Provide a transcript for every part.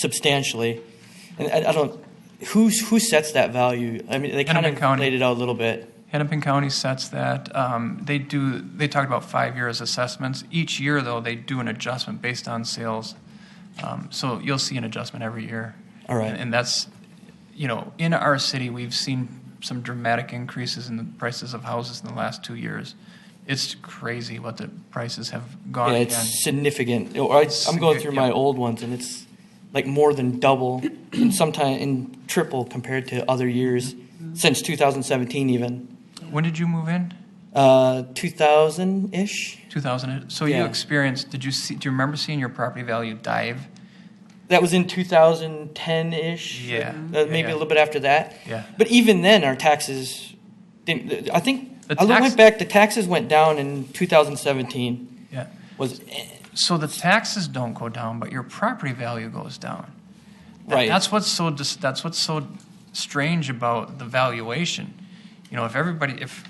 substantially. And I, I don't, who's, who sets that value? I mean, they kind Hennepin of County. laid it out a little bit. Hennepin County sets that. Um, They do, they talked about five years assessments. Each year, though, they do an adjustment based on sales. Um, So you'll see an adjustment every year. All right. And- And that's, you know, in our city, we've seen some dramatic increases in the prices of houses in the last two years. It's crazy what the prices have Yeah, gone again. it's significant. Or I, I'm going through my Significant. old ones, and it's like more than double, and sometimes and triple compared to other years since 2017, even When did you move in? uh, 2000 ish. 2000? So you Yeah. experienced, did you see, do you remember seeing your property value dive? That was in 2010 ish. Yeah. Uh, maybe a little bit after that. Yeah. But even then, our taxes didn't. I think The I tax- went back. The taxes went down in 2017. Yeah. Was So the taxes don't go down, but your property value goes down. That- Right. That's what's so dis- that's what's so strange about the valuation. You know, if everybody if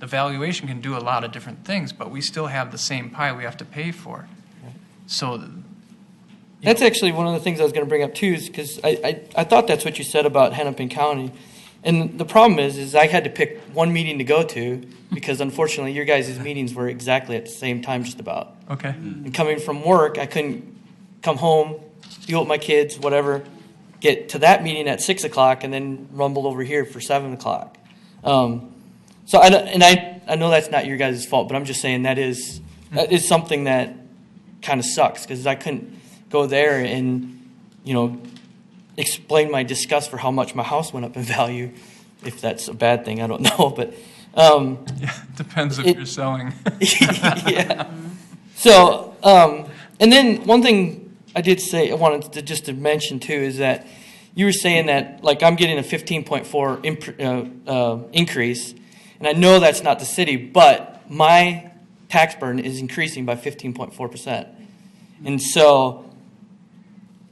the valuation can do a lot of different things, but we still have the same pie we have to pay for. So th- That's actually one of the things I was going to bring up too, is because I, I, I thought that's what you said about Hennepin County. And the problem is, is I had to pick one meeting to go to because unfortunately your guys' meetings were exactly at the same time just about. okay. And coming from work, I couldn't come home, deal with my kids, whatever, get to that meeting at six o'clock and then rumble over here for seven o'clock. Um, so I, don't- and I, I know that's not your guys' fault, but I'm just saying that is, that is something that kind of sucks because I couldn't go there and, you know, explain my disgust for how much my house went up in value. If that's a bad thing, I don't know, but, um, Yeah, depends if It- you're selling. yeah. So, um, and then one thing I did say I wanted to just to mention too is that you were saying that like I'm getting a 15.4 imp- uh, uh, increase, and I know that's not the city, but my tax burden is increasing by 15.4 percent, and so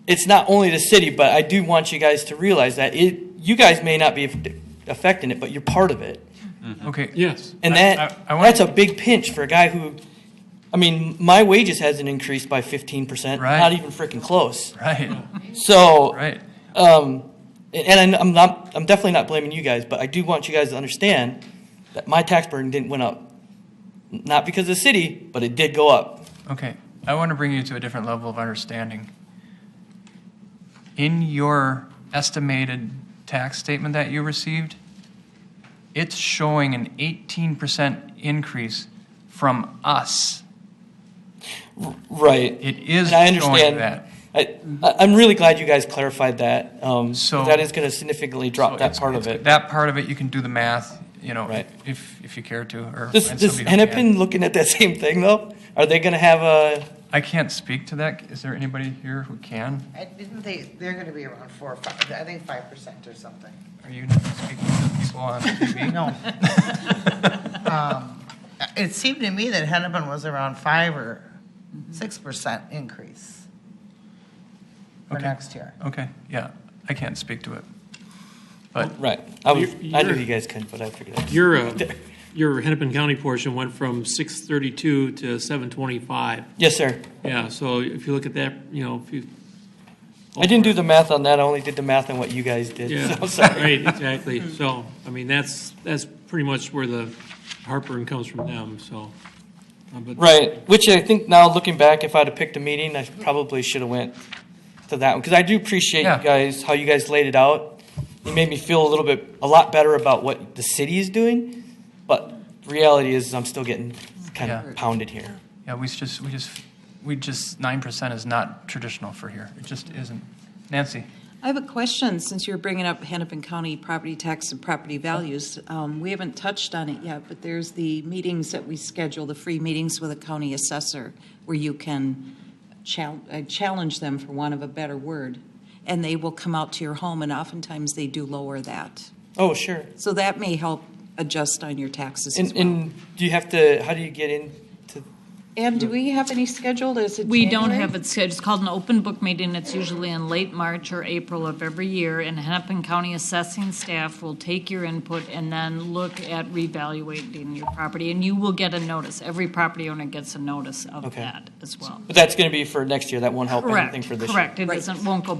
it's not only the city, but I do want you guys to realize that it you guys may not be aff- affecting it, but you're part of it. okay. Yes. And I- that I- I wanna- that's a big pinch for a guy who, I mean, my wages hasn't increased by fifteen percent, Right. not even freaking close. Right. So, Right. um, and I- I'm not, I'm definitely not blaming you guys, but I do want you guys to understand that my tax burden didn't went up, not because of the city, but it did go up. Okay, I want to bring you to a different level of understanding. In your estimated tax statement that you received, it's showing an 18% increase from us. Right. It is And I showing understand that. I, I- I'm really glad you guys clarified that. Um, So- that is going to significantly drop So that it's- part of it's- it. That part of it, you can do the math, you know, Right. if, if you care to, or. Does, find does somebody who can. Hennepin looking at that same thing though? Are they going to have a I can't speak to that. Is there anybody here who can? I Didn't they, they're going to be around four, or five, I think five percent or something. Are you not speaking to people on TV? No. Um, It seemed to me that Hennepin was around five or six percent increase for Okay. next year. Okay, yeah, I can't speak to it. But Right. I, was, You're- I knew you're- you guys couldn't, but I figured out. Your, uh, your Hennepin County portion went from 632 to 725. Yes, sir. Yeah, so if you look at that, you know, if you. I didn't do the math on that. I only did the math on what you guys did. Yeah, So I'm sorry. right, exactly. So, I mean, that's, that's pretty much where the heartburn comes from them, so. uh, but- Right. Which I think now looking back, if I'd have picked a meeting, I probably should have went to that one because I do appreciate Yeah. you guys how you guys laid it out. It made me feel a little bit a lot better about what the city is doing, but reality is I'm still getting kind Yeah. of pounded here. Yeah, we s- just, we just, we just, nine percent is not traditional for here. It just isn't. Nancy, I have a question, since you're bringing up Hennepin County property tax and property values. Um, We haven't touched on it yet, but there's the meetings that we schedule, the free meetings with a county assessor, where you can chal- uh, challenge them, for want of a better word, and they will come out to your home, and oftentimes they do lower that. Oh, sure. So that may help adjust on your taxes as And, well. and do you have to? How do you get into? And do we have any scheduled? Is it We don't January? have it scheduled. It's called an open book meeting. It's usually in late March or April of every year, and Hennepin County assessing staff will take your input and then look at revaluating your property, and you will get a notice. Every property owner gets a notice of Okay. that as well. But that's going to be for next year. That won't help anything Correct, for this year. correct. It Right. doesn't, won't go